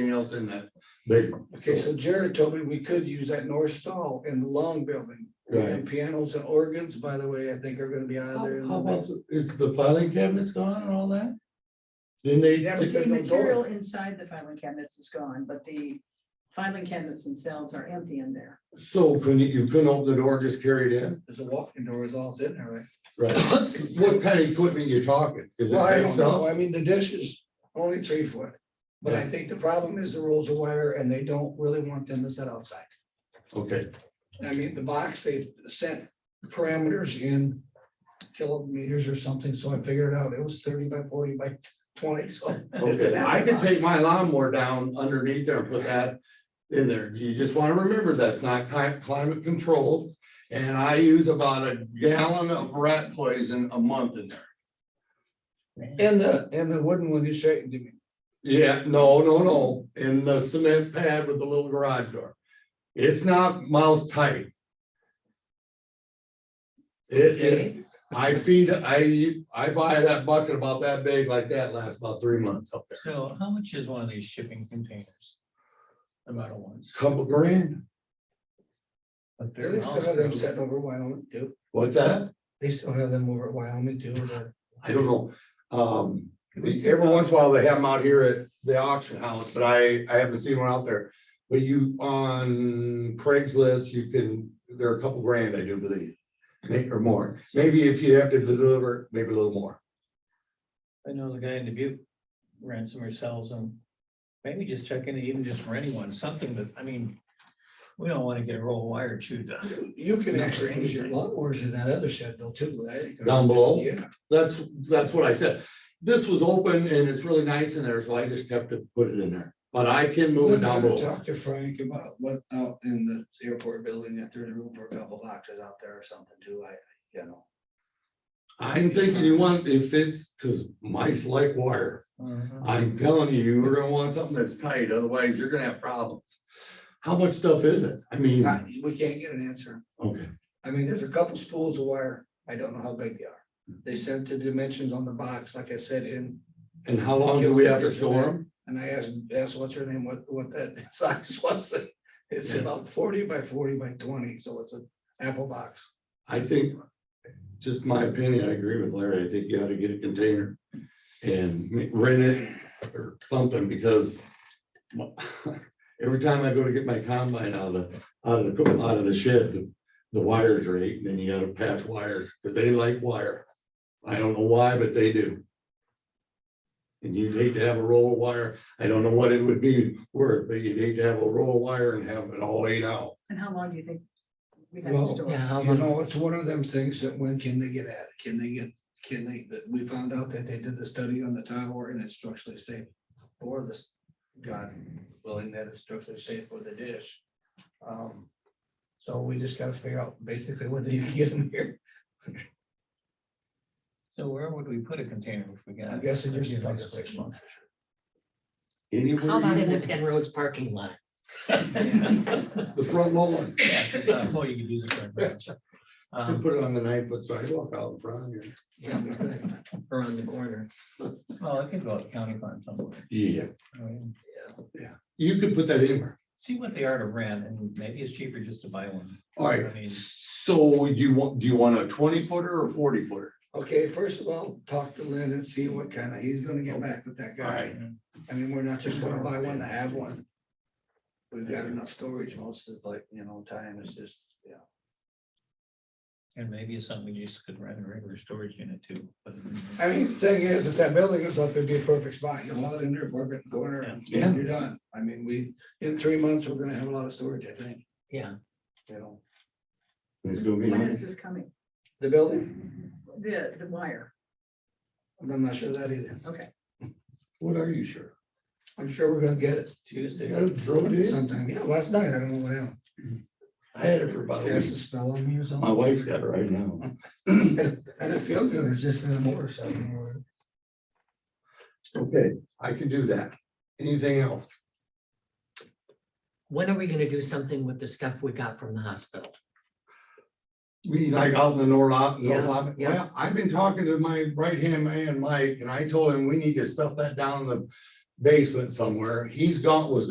Anything else in that big one? Okay, so Jared told me we could use that north stall in the long building. Right. And pianos and organs, by the way, I think are gonna be out of How- there. in the How wall. about, is the filing cabinets gone and all that? Didn't they? Yeah, but The there's no door. material inside the filing cabinets is gone, but the filing cabinets themselves are empty in there. So couldn't, you couldn't open the door, just carry it in? There's a walk-in door, it's all in there, right? Right. What kind of equipment you talking? Is it Well, I big don't know, stuff? I mean, the dish is only three foot, but I Yeah. think the problem is the rolls of wire and they don't really want them to sit outside. Okay, I mean, the box, they set parameters in kilometers or something, so I figured out it was thirty by forty by twenty, so. it's an okay. I could take box. my lawnmower down underneath there and put that in there. You just want to remember that's not cli- climate controlled. And I use about a gallon of rat poison a month in there. And the, and the wooden one you showed me, Yeah, no, no, no, in the cement pad with the little garage door. It's not mouse tight. It, it, Okay. I feed, I, I buy that bucket about that big like that, lasts about three months up there. So how much is one of these shipping containers? The metal ones. Couple grand, But They they're still have them also- set over Wyoming too. what's that? They still have them over at Wyoming too. but- I don't know. Um, every once in a while they have them out here at the auction house, but I, I haven't seen one out there. But you, on Craigslist, you can, they're a couple grand, I do believe, may- or more. Maybe if you have to deliver, maybe a little more. I know the guy in Dubuque rents them or sells them. Maybe just check in, even just for anyone, something that, I mean, we don't want to get a roll of wire chewed up. You can actually use your lawnmowers in that other shed though too. I think. Down below? Yeah, That's, that's what I said. This was open and it's really nice in there, so I just kept it, put it in there. But I can move it down Let's below. Talk to Frank about what out in the airport building, if there's room for a couple boxes out there or something too, I, you know. I'm thinking you want, if it's, because mice like wire. Mm-hmm. Uh-huh. I'm telling you, you're gonna want something that's tight, otherwise you're gonna have problems. How much stuff is it? I mean, Not- We can't get an answer. okay, I mean, there's a couple spools of wire. I don't know how big they are. They sent the dimensions on the box, like I said, in and how long do we have to store them? And I asked, asked what's her name, what, what that size was, it's about forty by forty by twenty, so it's an apple box. I think, just my opinion, I agree with Larry, I think you ought to get a container and ma- rent it or something, because my- every time I go to get my combine out of, the out of the, co- out of the shed, the, the wires are eight, then you gotta patch wires, because they like wire. I don't know why, but they do. And you'd hate to have a roll of wire, I don't know what it would be worth, but you'd hate to have a roll of wire and have it all laid out. And how long do you think? we have to Well, store? Yeah, You know, it's one of them things that when can they get at it? Can they get, can they, that we found out that they did the study on the tower and it's structurally safe for this, God willing, that it's structurally safe for the dish. Um, So we just gotta figure out basically when do you get them here. So where would we put a container if we got? I'm guessing there's Yeah, about that's six what- months. Anywhere How about you in the want. Penrose parking lot? The front lawn. Yeah, if it's not a hole, you could use it for a branch. You Um, put it on the nine foot sidewalk out in front of here. Or on the corner. Well, I could go out to county farm somewhere. Yeah. I mean, You could put that anywhere. See what they are to rent and maybe it's cheaper just to buy one. All I mean- right, so you want, do you want a twenty footer or forty footer? Okay, first of all, talk to Lynn and see what kind of, he's gonna get back with that guy. I mean, we're not just gonna buy one to have one. We've got enough storage most of like, you know, time is just, yeah. And maybe it's something you just could rent a regular storage unit too. but- I mean, the thing is, if that building is up, it'd be a perfect spot. You haul it in there, park it, go in there, and Yeah. you're done. I mean, we, in three months, we're gonna have a lot of storage, I think, Yeah, you know. It's gonna be When is nice. this coming? The building, The, the wire. I'm not sure of that either. What are you sure? I'm sure we're gonna get it You Tuesday. got it thrown in? sometime. Yeah, last night, I don't know what happened. I had it for about a Cast week. a spell on me or something. My wife's got it right now. And and it felt good, it's just in the motorcycle. Okay, I can do that. Anything else? when are we gonna do something with the stuff we got from the hospital? mean like out in the north, lot- north, Yeah, lot. yeah. Well, I've been talking to my right hand man, Mike, and I told him we need to stuff that down in the basement somewhere. He's gone, was